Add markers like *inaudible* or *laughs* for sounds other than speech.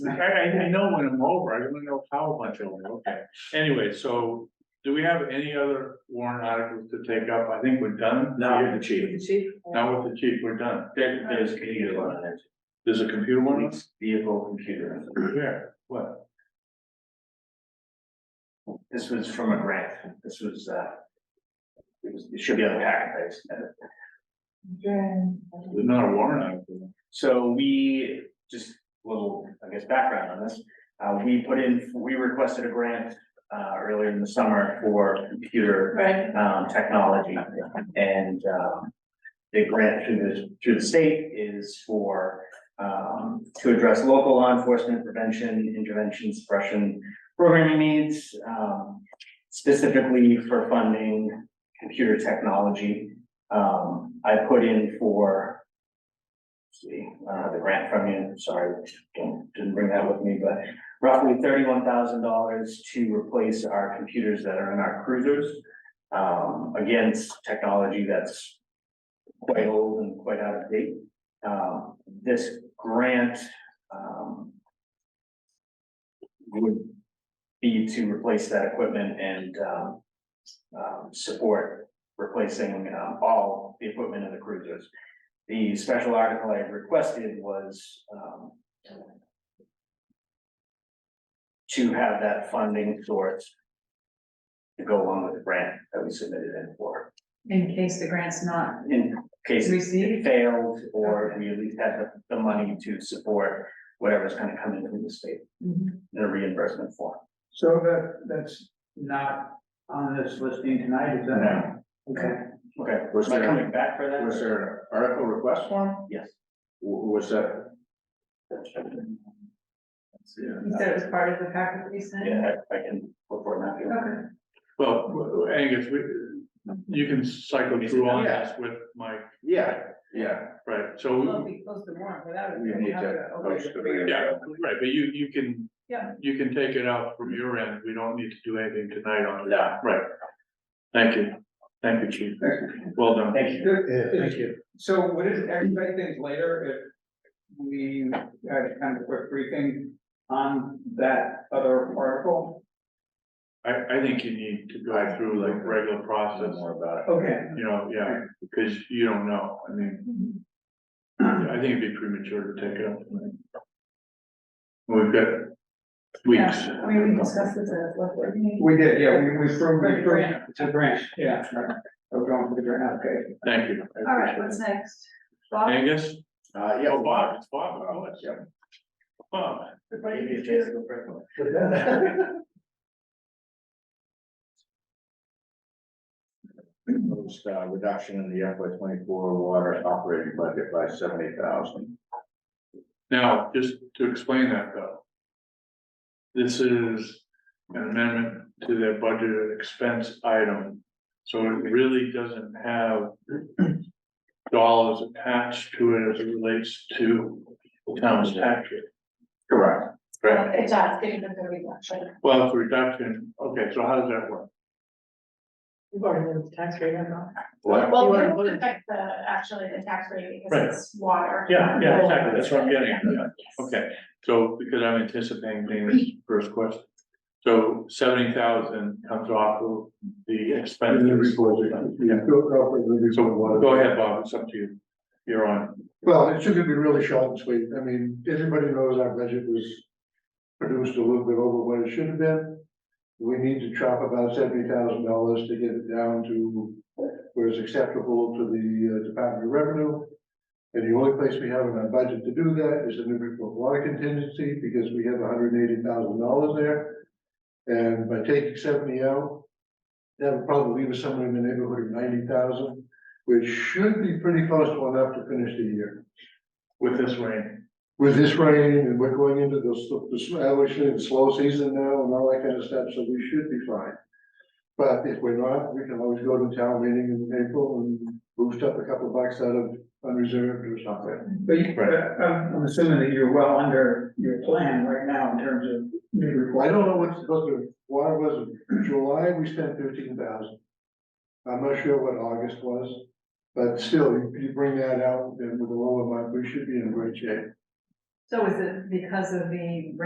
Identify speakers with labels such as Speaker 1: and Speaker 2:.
Speaker 1: I, I, I know when I'm over, I don't know how much over, okay. Anyway, so do we have any other warrant articles to take up? I think we're done.
Speaker 2: Now
Speaker 1: Yeah,
Speaker 2: with the chief,
Speaker 3: Chief?
Speaker 1: Now with the chief, we're done.
Speaker 2: there, there's a computer on it,
Speaker 1: There's a computer one?
Speaker 2: it's vehicle computer,
Speaker 1: Where? What?
Speaker 2: this was from a grant, this was, uh. It was, it should be on the packet, I just had it.
Speaker 1: There's not a warrant article.
Speaker 2: So we, just a little, I guess, background on this, uh, we put in, we requested a grant, uh, earlier in the summer for computer,
Speaker 3: Right,
Speaker 2: um, technology. And, um, the grant through the, through the state is for, um, to address local law enforcement prevention, intervention, suppression, programming needs, um, specifically for funding computer technology. Um, I put in for, see, I don't have the grant from you, sorry, don't, didn't bring that with me, but roughly thirty-one thousand dollars to replace our computers that are in our cruisers. Um, against technology that's quite old and quite out of date. Um, this grant, um. Would be to replace that equipment and, um, um, support replacing, um, all the equipment in the cruisers. The special article I requested was, um. To have that funding source. To go along with the grant that we submitted in for,
Speaker 3: in case the grant's not,
Speaker 2: in case it
Speaker 3: Received?
Speaker 2: failed, or we at least had the, the money to support. Whatever's gonna come in from the state in a reimbursement form.
Speaker 4: So that, that's not on this listing tonight, is that? Okay.
Speaker 2: Okay,
Speaker 1: Was
Speaker 2: am I
Speaker 1: there-
Speaker 2: coming back for that?
Speaker 1: Was there an article request form?
Speaker 2: Yes.
Speaker 1: Who, who was that?
Speaker 3: you said it was part of the packet that you sent?
Speaker 2: Yeah, I, I can look for it now.
Speaker 3: Okay.
Speaker 1: Well, w- w- Angus, we, you can cycle through on
Speaker 2: Yeah.
Speaker 1: this with Mike,
Speaker 2: Yeah.
Speaker 1: yeah, right, so. we-
Speaker 3: Well, we closed the warrant without it.
Speaker 1: We need to
Speaker 3: Okay.
Speaker 1: Yeah, right, but you, you can.
Speaker 3: Yeah.
Speaker 1: You can take it out from your end, we don't need to do anything tonight on it,
Speaker 2: Yeah.
Speaker 1: right? Thank you, thank you, chief, well done.
Speaker 2: Thank you.
Speaker 4: Thank you. So what is, everybody thinks later if we had kind of a quick briefing on that other article?
Speaker 1: I, I think you need to go through like regular process,
Speaker 2: about
Speaker 4: Okay.
Speaker 1: you know, yeah, because you don't know, I mean,
Speaker 3: Mm-hmm.
Speaker 1: I think it'd be premature to take it up. tonight. We've got weeks.
Speaker 3: Yeah, I mean, we discussed this at what, what meeting?
Speaker 4: We did, yeah, we, we approved,
Speaker 3: For
Speaker 4: we
Speaker 3: the
Speaker 4: approved.
Speaker 3: grant.
Speaker 4: It's a grant, yeah. right. We're going for the grant, okay.
Speaker 1: Thank you. I
Speaker 3: All right,
Speaker 1: appreciate
Speaker 3: what's
Speaker 1: it.
Speaker 3: next? Bob?
Speaker 1: Angus?
Speaker 2: Uh, yeah,
Speaker 1: Oh,
Speaker 2: well,
Speaker 1: Bob, it's Bob, oh, it's, yeah. Bob,
Speaker 3: Everybody
Speaker 2: Maybe a
Speaker 3: confused?
Speaker 2: chance to go for
Speaker 3: *laughs*
Speaker 2: it.
Speaker 5: Most uh, reduction in the FY twenty-four water operating budget by seventy thousand.
Speaker 1: Now, just to explain that though. This is an amendment to their budget and expense item, so it really doesn't have. Dollars attached to it as it relates to the town's tax rate.
Speaker 5: Correct.
Speaker 1: Correct.
Speaker 3: It
Speaker 6: uh,
Speaker 3: does, giving them the reduction.
Speaker 1: Well, it's a reduction, okay, so how does that work?
Speaker 3: You've already moved the tax rate, I know.
Speaker 5: What?
Speaker 6: Well,
Speaker 1: You
Speaker 6: it
Speaker 1: wanna
Speaker 6: won't
Speaker 1: put it-
Speaker 6: affect the, actually the tax rate
Speaker 1: Right.
Speaker 6: because it's water.
Speaker 1: Yeah, yeah, exactly, that's what I'm getting at, yeah.
Speaker 6: Yes.
Speaker 1: Okay, so because I'm anticipating Dana's first question. So seventy thousand comes off of the expense. So go ahead, Bob, it's up to you. You're on.
Speaker 7: Well, it should be really short and sweet. I mean, everybody knows our budget was produced a little bit over what it should have been. We need to chop about seventy thousand dollars to get it down to where it's acceptable to the uh, Department of Revenue. And the only place we have in our budget to do that is the Newburyport Water Contingency, because we have hundred and eighty thousand dollars there. And by taking seventy out, that would probably leave us somewhere in the neighborhood of ninety thousand, which should be pretty close to enough to finish the year
Speaker 1: With this rain,
Speaker 7: with this rain and we're going into the, s- the, s- I wish it was slow season now and all that kind of stuff, so we should be fine. But if we're not, we can always go to town meeting in April and boost up a couple bucks out of unreserved or something.
Speaker 4: But you, but um, I'm, I'm assuming that you're well under your plan right now in terms of new
Speaker 7: I
Speaker 4: requirements.
Speaker 7: don't know what's supposed to, water was, July, we spent fifteen thousand. I'm not sure what August was, but still, you you bring that out, then with a lower amount, we should be in great shape.
Speaker 3: So is it because of the